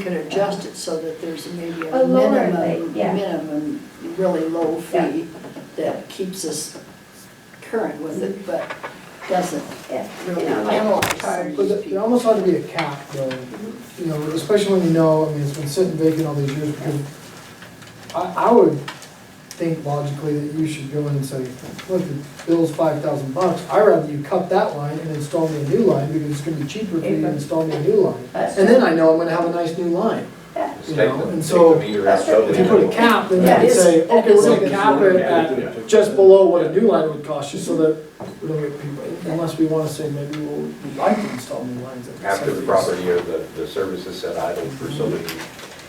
could adjust it so that there's maybe a A lower minimum, rate, yeah. minimum, really low Yeah. fee that keeps us current with it, but doesn't Yeah. really Yeah, like penalize some charge. of But these there- there people. almost ought to be a cap, though, you know, especially when you know, I mean, it's been sitting vacant all these years, because I, I would think logically that you should go in and say, look, the bill's five thousand bucks, I'd rather you cut that line and install me a new line, because it's gonna be cheaper for you to install me a new line. That's And true. then I know I'm gonna have a nice new line. Yeah. You Take know, the- and take so the meter that's out totally. If you put a cap, then you Yeah. could say, That okay, is- we're that gonna is- cap it at just below what a new line would cost you, so that we don't get people, unless we wanna say maybe we'll, we'd like to install new lines at the After the site. property or the, the services set idle for so many,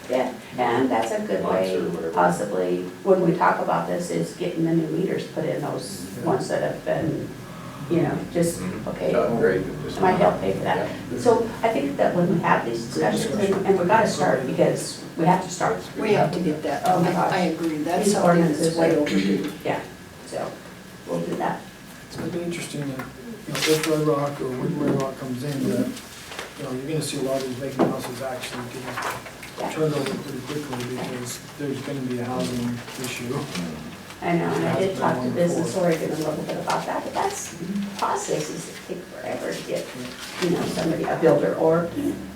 Yeah, and that's a good Months or way, whatever. possibly, when we talk about this, is getting the new meters put in, those ones that have been, you know, just, Mm-hmm. Mm-hmm. okay, to upgrade it, just. might help pay for that. So I think that when we have these discussions, and and we gotta start, because we have to start, We have to get that, Oh my I gosh. I agree, that's These something that's ordinances way are- overdue. yeah, so we'll do that. It's gonna be interesting, that, you know, if Red Rock or when Red Rock comes in, that, you know, you're gonna see a lot of these vacant houses actually Yeah. getting turned over pretty quickly, because there's gonna be a housing issue. I know, and I did talk to Business Oregon a little bit about that, but that's processes that take forever to get, you know, somebody, a builder or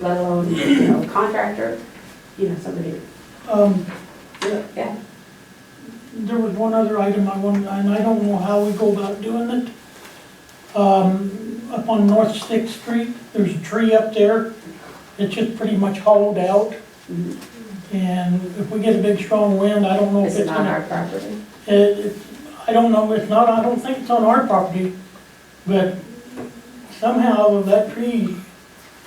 let alone, you know, contractor, you know, somebody, Um, yeah. there was one other item I wanted, and I don't know how we go about doing it. Um, up on North Sixth Street, there's a tree up there, it's just pretty much hollowed out. Mhm. And if we get a big strong wind, I don't know if Is it it's on our gonna. property? It, it, I don't know, it's not, I don't think it's on our property, but somehow that tree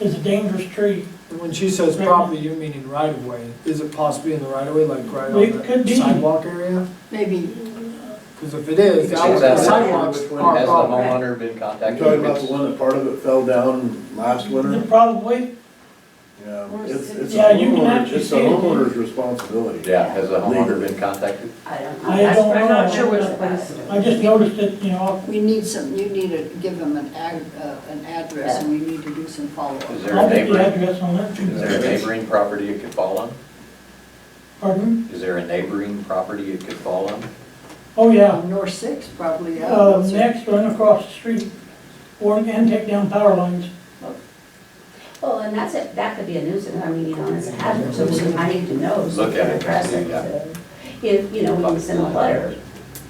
is a dangerous tree. And when she says property, you're meaning right of way, is it possibly in the right of way, like right It could on the be. sidewalk area? Maybe Cause if it is, that Has was that- the sidewalks Has the are problem. homeowner been You talking contacted? about the one that part of it fell down last winter? It Probably, Yeah, it's, it's a Mm-hmm. Yeah, you can homeowner, actually it's a see it. homeowner's responsibility. Yeah, has the homeowner been contacted? I don't know. I That's- don't I'm not know. sure where the place is. I just noticed it, you know, we need some, you need to give them an ag, uh, an address and we need to do some follow-up. Is there I'll a get the neighboring, address on that. is there a neighboring property it could fall on? Pardon? Is there a neighboring property it could fall on? Oh, yeah. North Six probably, yeah. Uh, next, run across the street, or, and take down power lines. Well, and that's it, that could be a nuisance, I mean, you know, it's a hazard, so we- I need to know. so Look at it, address yeah. If, you know, we can send a letter,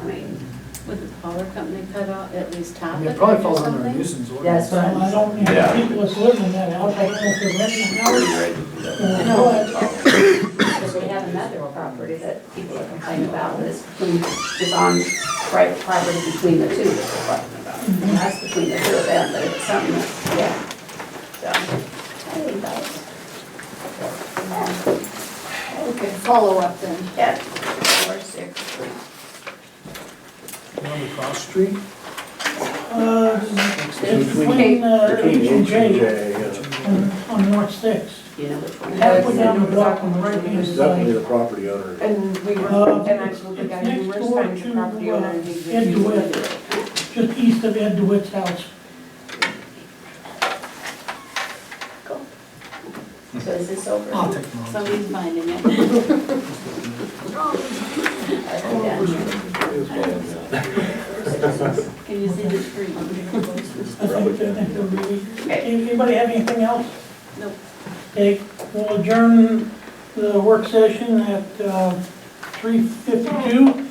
I mean, Would the power company cut out at least I half mean, of It it or probably falls under a something? nuisance that's ordinance. what Well, I I'm, don't, you know, Yeah. people that's living in that house, I don't know if they're renting a Where house. you ready to do that? Oh. or No. what. because we have another property that people are complaining about, and it's between, it's on private property between the two that they're talking about. And That's between the two of them, but it's something, that- yeah, so, I think that's. yeah. Okay, follow-up then. Yeah, four, six, three. The one across the street? Uh, it's Between- between, uh, Between H and H and J J, uh, yeah. on, on North Sixth. You know which one? Halfway down the block on the right hand It's definitely side. the property owner. And we Uh, were, and I told the guy it's next numerous door times, to, the property uh, owner needs Ed to do DeWitt. it. just east of Ed DeWitt's house. So is this I'll over? take mine. Somebody's finding it. Yeah. Can you see the tree? I think, I think they'll be, Okay. anybody have anything else? Nope. Okay, we'll adjourn the work session at three uh, fifty-two.